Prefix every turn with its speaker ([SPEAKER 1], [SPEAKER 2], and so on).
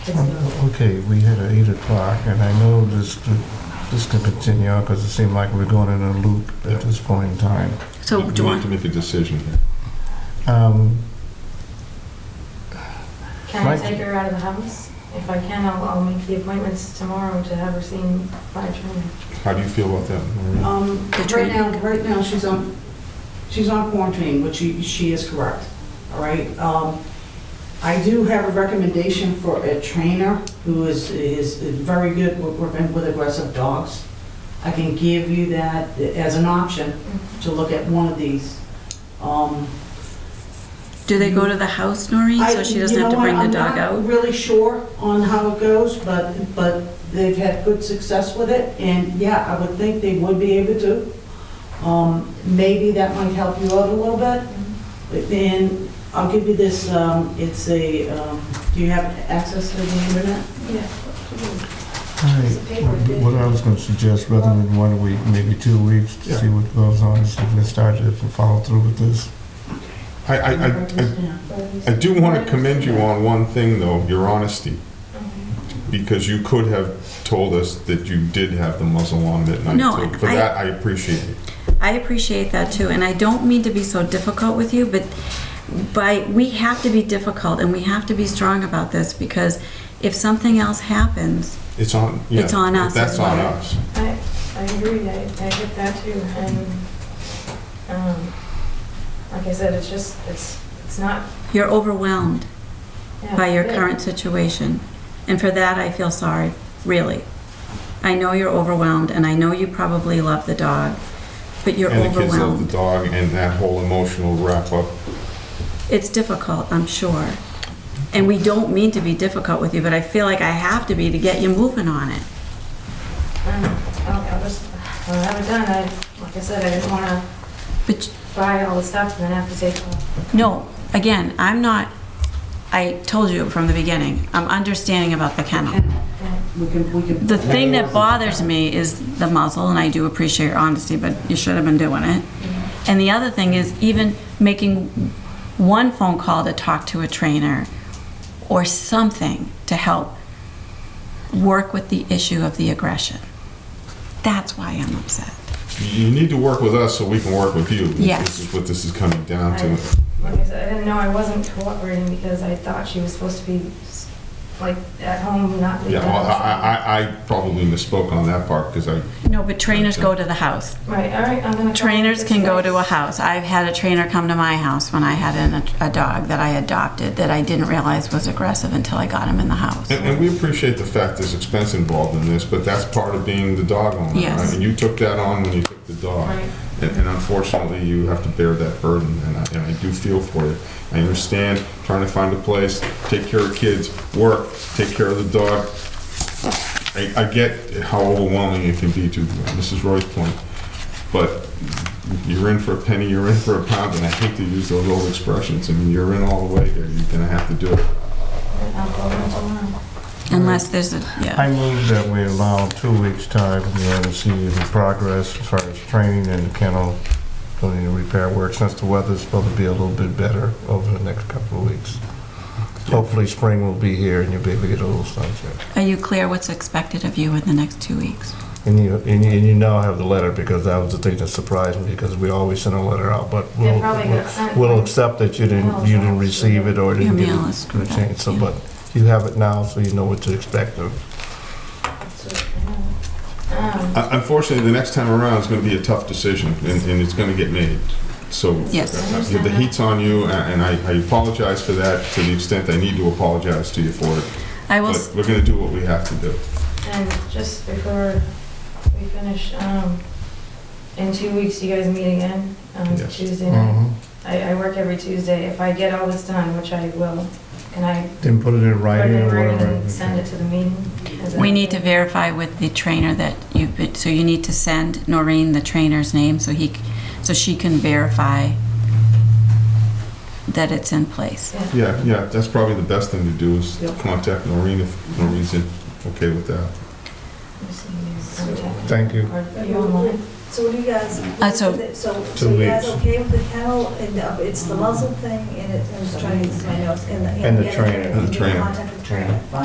[SPEAKER 1] It's not.
[SPEAKER 2] Okay, we hit at eight o'clock, and I know this, this can continue on, because it seemed like we're going in a loop at this point in time.
[SPEAKER 3] So do you
[SPEAKER 4] We need
[SPEAKER 3] want,
[SPEAKER 4] to make a decision here.
[SPEAKER 2] Um,
[SPEAKER 1] Can I
[SPEAKER 2] Mike?
[SPEAKER 1] take her out of the house? If I can, I'll, I'll make the appointments tomorrow to have her seen by a trainer.
[SPEAKER 4] How do you feel about that, Maria?
[SPEAKER 5] Um,
[SPEAKER 3] The
[SPEAKER 5] right
[SPEAKER 3] training.
[SPEAKER 5] now, right now, she's on, she's on quarantine, which she, she is correct, all right? Um, I do have a recommendation for a trainer who is, is very good with, with with aggressive dogs. I can give you that as an option to look at one of these. Um,
[SPEAKER 3] do they go to the house, Noreen,
[SPEAKER 5] I-
[SPEAKER 3] so she
[SPEAKER 5] you
[SPEAKER 3] doesn't have to
[SPEAKER 5] know what,
[SPEAKER 3] bring the dog
[SPEAKER 5] I'm
[SPEAKER 3] out?
[SPEAKER 5] not really sure on how it goes, but, but they've had good success with it, and yeah, I would think they would be able to. Um, Maybe that might help you out a little bit. But Then, I'll give you this, um, it's a, um, do you have access to the internet?
[SPEAKER 1] Yeah.
[SPEAKER 2] all right, what I was gonna suggest, rather than one week, maybe two weeks, to see what goes on, and see if we start to follow through with this.
[SPEAKER 4] I, I, I- I, I do want to commend you on one thing, though, your honesty, because you could have told us that you did have the muzzle on at night.
[SPEAKER 3] No,
[SPEAKER 4] too. For
[SPEAKER 3] I-
[SPEAKER 4] that, I appreciate it.
[SPEAKER 3] I appreciate that too, and I don't mean to be so difficult with you, but by, we have to be difficult and we have to be strong about this because if something else happens,
[SPEAKER 4] It's on, yeah.
[SPEAKER 3] It's on us
[SPEAKER 4] That's
[SPEAKER 3] as
[SPEAKER 4] on
[SPEAKER 3] well.
[SPEAKER 4] us.
[SPEAKER 1] I, I agree, I, I get that too, and, um, like I said, it's just, it's, it's not.
[SPEAKER 3] you're overwhelmed
[SPEAKER 1] yeah,
[SPEAKER 3] by your
[SPEAKER 1] good.
[SPEAKER 3] current situation. And for that, I feel sorry, really. I know you're overwhelmed and I know you probably love the dog, but you're
[SPEAKER 4] And the kids love
[SPEAKER 3] overwhelmed.
[SPEAKER 4] the dog and that whole emotional wrap up.
[SPEAKER 3] It's difficult, I'm sure. And we don't mean to be difficult with you, but I feel like I have to be to get you moving on it.
[SPEAKER 1] Um, I'll, I'll just, I'll have it done, I, like I said, I didn't wanna
[SPEAKER 3] But,
[SPEAKER 1] buy all the stuff and then have to take all.
[SPEAKER 3] no, again, I'm not, I told you from the beginning, I'm understanding about the kennel.
[SPEAKER 5] We can, we can.
[SPEAKER 3] The thing that bothers me is the muzzle, and I do appreciate your honesty, but you should have been doing it. And the other thing is even making one phone call to talk to a trainer or something to help work with the issue of the aggression. That's why I'm upset.
[SPEAKER 4] You need to work with us so we can work with you. This
[SPEAKER 3] Yes.
[SPEAKER 4] is What this is coming down
[SPEAKER 1] I-
[SPEAKER 4] to.
[SPEAKER 1] Like I said, I didn't know I wasn't cooperating because I thought she was supposed to be, s- like, at home, not leave
[SPEAKER 4] Yeah,
[SPEAKER 1] the
[SPEAKER 4] well,
[SPEAKER 1] house.
[SPEAKER 4] I, I, I probably misspoke on that part because I,
[SPEAKER 3] No, but trainers go to the house.
[SPEAKER 1] Right, all right, I'm gonna.
[SPEAKER 3] Trainers can go to a
[SPEAKER 1] house.
[SPEAKER 3] house. I've had a trainer come to my house when I had an, a dog that I adopted that I didn't realize was aggressive until I got him in the house.
[SPEAKER 4] And, and we appreciate the fact there's expense involved in this, but that's part of being the dog owner,
[SPEAKER 3] Yes.
[SPEAKER 4] right? And you took that on when you took the dog.
[SPEAKER 1] Right.
[SPEAKER 4] And, and unfortunately, you have to bear that burden, and I, and I do feel for you. I understand trying to find a place, take care of kids, work, take care of the dog. I, I get how overwhelming it can be to Mrs. Roy's point, but you're in for a penny, you're in for a pound, and I hate to use those old expressions. I mean, you're in all the way here, you're gonna have to do it.
[SPEAKER 1] I'll go over tomorrow.
[SPEAKER 3] Unless there's a, yeah.
[SPEAKER 2] I move that we allow two weeks' time, you know, to see the progress as far as training and the kennel, doing the repair work, since the weather's supposed to be a little bit better over the next couple of weeks. Hopefully, spring will be here and you'll be able to get a little sunshine.
[SPEAKER 3] Are you clear what's expected of you in the next two weeks?
[SPEAKER 2] And you, and you, and you now have the letter, because that was the thing that surprised me, because we always send a letter out, but
[SPEAKER 1] They
[SPEAKER 2] we'll,
[SPEAKER 1] probably got sent.
[SPEAKER 2] we'll accept that you didn't, you didn't receive it or
[SPEAKER 3] Your
[SPEAKER 2] didn't get
[SPEAKER 3] meal
[SPEAKER 2] it.
[SPEAKER 3] is screwed up,
[SPEAKER 2] changed. So,
[SPEAKER 3] yeah.
[SPEAKER 2] but you have it now, so you know what to expect of
[SPEAKER 1] Um,
[SPEAKER 4] Un- Uh, Unfortunately, the next time around is going to be a tough decision, and, and it's going to get made. So
[SPEAKER 3] Yes.
[SPEAKER 4] uh, the heat's on you, a- and I, I apologize for that to the extent I need to apologize to you for it.
[SPEAKER 3] I will,
[SPEAKER 4] But
[SPEAKER 3] s-
[SPEAKER 4] we're going to do what we have to do.
[SPEAKER 1] And just before we finish, um, in two weeks, you guys meet again, um,
[SPEAKER 4] Yes. Uh-huh.
[SPEAKER 1] Tuesday night.
[SPEAKER 2] it.
[SPEAKER 1] I, I work every Tuesday. If I get all this done, which I will, can I
[SPEAKER 2] Then put it in
[SPEAKER 1] put
[SPEAKER 2] writing
[SPEAKER 1] it
[SPEAKER 2] or
[SPEAKER 1] in writing
[SPEAKER 2] whatever.
[SPEAKER 1] and send it to the meeting? Is that
[SPEAKER 3] we need to
[SPEAKER 1] okay?
[SPEAKER 3] verify with the trainer that you've been, so you need to send Noreen the trainer's name so he, c- so she can verify that it's in place.
[SPEAKER 1] Yeah.
[SPEAKER 4] Yeah, yeah, that's probably the best thing to do is
[SPEAKER 5] Yep.
[SPEAKER 4] contact Noreen if Noreen's in- okay with that.
[SPEAKER 1] Contact.
[SPEAKER 2] Thank you.
[SPEAKER 1] Or are you online?
[SPEAKER 6] So what do you guys,
[SPEAKER 3] Uh, so-
[SPEAKER 6] so,
[SPEAKER 2] Two
[SPEAKER 6] so you guys
[SPEAKER 2] weeks.
[SPEAKER 6] okay with the kennel, and uh, it's the muzzle thing, and it- and it's trying to, I know, it's in the.
[SPEAKER 2] And the trainer.
[SPEAKER 4] And the trainer.
[SPEAKER 6] Contact with the trainer.